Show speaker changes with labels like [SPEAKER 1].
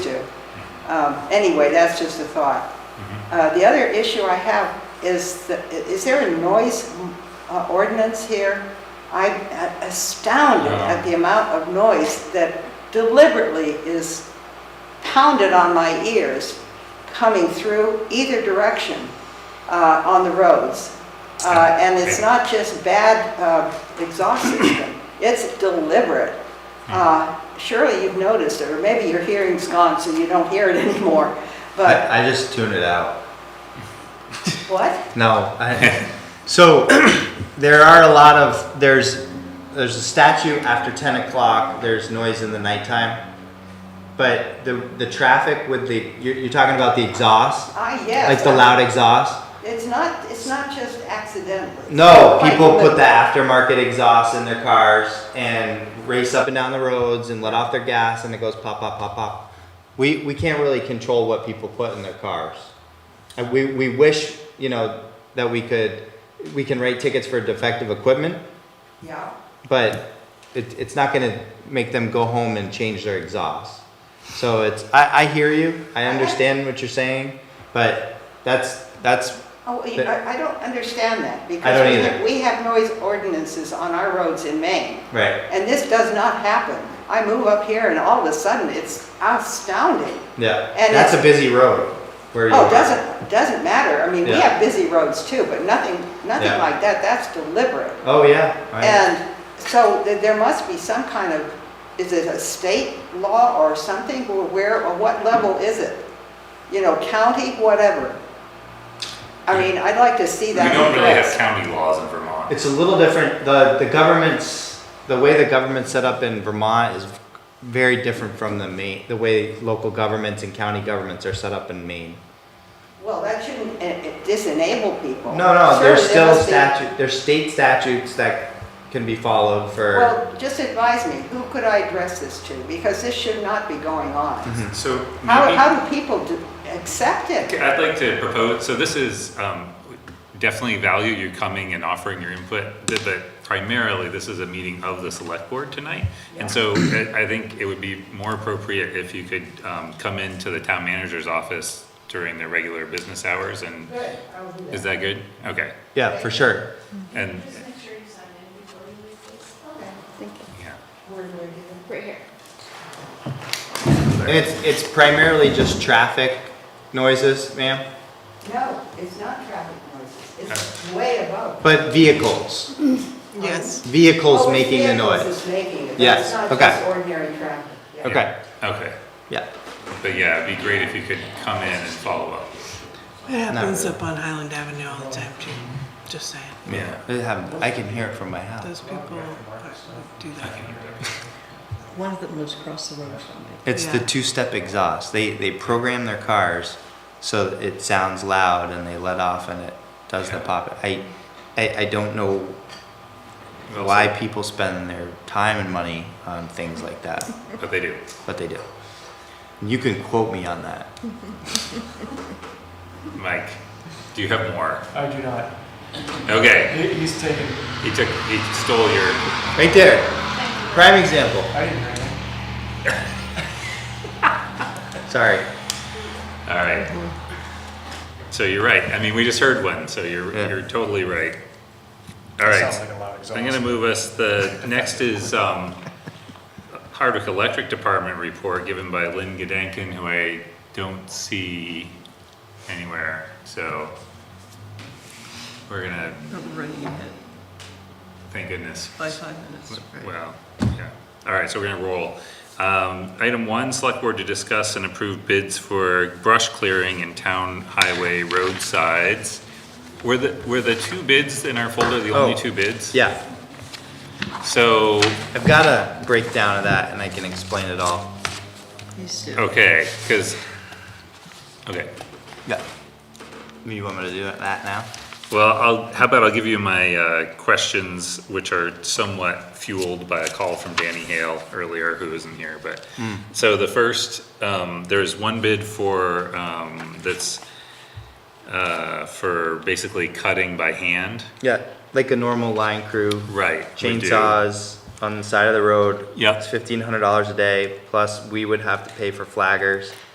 [SPEAKER 1] Um, Anyway, that's just a thought.
[SPEAKER 2] Mm-hmm.
[SPEAKER 1] Uh, The other issue I have is, the- is there a noise uh, ordinance here? I'm astounded
[SPEAKER 2] Yeah.
[SPEAKER 1] at the amount of noise that deliberately is pounded on my ears coming through either direction uh, on the roads. Uh, And it's not just bad uh, exhaust system, it's deliberate. Uh, Surely you've noticed, it, or maybe your hearing's gone, so you don't hear it anymore, but,
[SPEAKER 3] I, I just tune it out.
[SPEAKER 1] what?
[SPEAKER 3] No, I, so there are a lot of, there's, there's a statute after ten o'clock, there's noise in the nighttime. But the, the traffic with the, you're, you're talking about the exhaust,
[SPEAKER 1] Ah, yes.
[SPEAKER 3] like the loud exhaust?
[SPEAKER 1] It's not, it's not just accidentally.
[SPEAKER 3] No,
[SPEAKER 1] Like
[SPEAKER 3] people put
[SPEAKER 1] the-
[SPEAKER 3] the aftermarket exhaust in their cars and race up and down the roads and let off their gas and it goes pop, pop, pop, pop. We, we can't really control what people put in their cars. And we, we wish, you know, that we could, we can write tickets for defective equipment,
[SPEAKER 1] Yeah,
[SPEAKER 3] but it, it's not gonna make them go home and change their exhaust. So it's, I, I hear you, I understand what you're saying, but that's, that's,
[SPEAKER 1] oh, you-
[SPEAKER 3] But-
[SPEAKER 1] I, I don't understand that, because
[SPEAKER 3] don't
[SPEAKER 1] we
[SPEAKER 3] either.
[SPEAKER 1] have- we have noise ordinances on our roads in Maine,
[SPEAKER 3] right,
[SPEAKER 1] and this does not happen. I move up here and all of a sudden, it's astounding.
[SPEAKER 3] yeah.
[SPEAKER 1] And
[SPEAKER 3] That's
[SPEAKER 1] it's-
[SPEAKER 3] a busy road where you
[SPEAKER 1] Oh,
[SPEAKER 3] are.
[SPEAKER 1] doesn't, doesn't matter, I mean, we
[SPEAKER 3] Yeah.
[SPEAKER 1] have busy roads too, but nothing, nothing
[SPEAKER 3] Yeah.
[SPEAKER 1] like that, that's deliberate.
[SPEAKER 3] Oh, yeah. I-
[SPEAKER 1] And so th- there must be some kind of, is it a state law or something, or where, or what level is it? You know, county, whatever. I mean, I'd like to see
[SPEAKER 2] We
[SPEAKER 1] that.
[SPEAKER 2] don't really have
[SPEAKER 1] addressed.
[SPEAKER 2] county laws in Vermont.
[SPEAKER 3] It's a little different, the, the government's, the way the government's set up in Vermont is very different from the Maine, the way local governments and county governments are set up in Maine.
[SPEAKER 1] Well, that shouldn't eh, eh, disenable people.
[SPEAKER 3] No, no,
[SPEAKER 1] Surely there
[SPEAKER 3] there's still
[SPEAKER 1] must be-
[SPEAKER 3] statute, there's state statutes that can be followed for,
[SPEAKER 1] Well, just advise me, who could I address this to? Because this should not be going on.
[SPEAKER 3] Mm-hmm.
[SPEAKER 2] So
[SPEAKER 1] How,
[SPEAKER 2] maybe-
[SPEAKER 1] how do people do- accept
[SPEAKER 2] Okay,
[SPEAKER 1] it?
[SPEAKER 2] I'd like to propose, so this is, um, definitely value you coming and offering your input, th- but primarily, this is a meeting of the select board tonight. And so I, I think it would be more appropriate if you could, um, come into the town manager's office during their regular business hours and, is that Mm-hmm. good? Okay,
[SPEAKER 3] yeah, for sure.
[SPEAKER 2] and,
[SPEAKER 4] Just make sure you sign in before you leave, please.
[SPEAKER 5] Thank you.
[SPEAKER 2] yeah.
[SPEAKER 4] Right here.
[SPEAKER 3] And it's, it's primarily just traffic noises, ma'am,
[SPEAKER 1] No, it's not traffic noises, it's way above.
[SPEAKER 3] but vehicles,
[SPEAKER 1] Yes.
[SPEAKER 3] vehicles
[SPEAKER 1] Oh,
[SPEAKER 3] making the
[SPEAKER 1] vehicles
[SPEAKER 3] noise.
[SPEAKER 1] is making it.
[SPEAKER 3] Yes,
[SPEAKER 1] It's not
[SPEAKER 3] okay.
[SPEAKER 1] just ordinary traffic. yeah.
[SPEAKER 3] Okay,
[SPEAKER 2] Okay,
[SPEAKER 3] yeah,
[SPEAKER 2] but yeah, it'd be great if you could come in and follow up.
[SPEAKER 6] It happens
[SPEAKER 3] really.
[SPEAKER 6] up on Highland Avenue all the time too, just saying.
[SPEAKER 2] Yeah.
[SPEAKER 3] It happened- I can hear it from my house.
[SPEAKER 6] Those people are- do that.
[SPEAKER 5] One of them lives across the road from me.
[SPEAKER 3] It's the
[SPEAKER 6] Yeah.
[SPEAKER 3] two-step exhaust. They they program their cars so that it sounds loud and they let off and it does the pop. I, I I don't know
[SPEAKER 2] Well
[SPEAKER 3] why
[SPEAKER 2] said.
[SPEAKER 3] people spend their time and money on things like that,
[SPEAKER 2] But they do.
[SPEAKER 3] but they do. You can quote me on that.
[SPEAKER 2] Mike, do you have more?
[SPEAKER 7] I do not.
[SPEAKER 2] Okay,
[SPEAKER 7] He- He's taken,
[SPEAKER 2] he took, he stole your,
[SPEAKER 3] Right there, prime example.
[SPEAKER 7] I didn't hear anything.
[SPEAKER 3] Sorry.
[SPEAKER 2] all right. So you're right. I mean, we just heard one, so you're,
[SPEAKER 3] Yeah.
[SPEAKER 2] you're totally right. All
[SPEAKER 7] Sounds like
[SPEAKER 2] right,
[SPEAKER 7] a loud exhaust.
[SPEAKER 2] I'm gonna move us, the next is, um, Hardwick Electric Department report given by Lynn Gedanken, who I don't see anywhere, so we're gonna,
[SPEAKER 5] I'm running ahead
[SPEAKER 2] thank goodness.
[SPEAKER 5] by five minutes.
[SPEAKER 2] Well, yeah. All right, so we're gonna roll. Um, item one, select board to discuss and approve bids for brush clearing and town highway roadsides. Were the, were the two bids in our folder the only
[SPEAKER 3] Oh,
[SPEAKER 2] two bids?
[SPEAKER 3] Yeah,
[SPEAKER 2] So,
[SPEAKER 3] I've got a breakdown of that and I can explain it all.
[SPEAKER 5] He's still.
[SPEAKER 2] okay, cause, okay.
[SPEAKER 3] Yeah. You want me to do it- that now?
[SPEAKER 2] Well, I'll, how about I'll give you my, uh, questions, which are somewhat fueled by a call from Danny Hale earlier, who isn't here, but. So the first, um, there's one bid for, um, that's, uh, for basically cutting by hand.
[SPEAKER 3] Yeah, like a normal line crew.
[SPEAKER 2] Right. we do.
[SPEAKER 3] chainsaws on the side of the road.
[SPEAKER 2] Yep.
[SPEAKER 3] It's fifteen hundred dollars a day, plus we would have to pay for flaggers.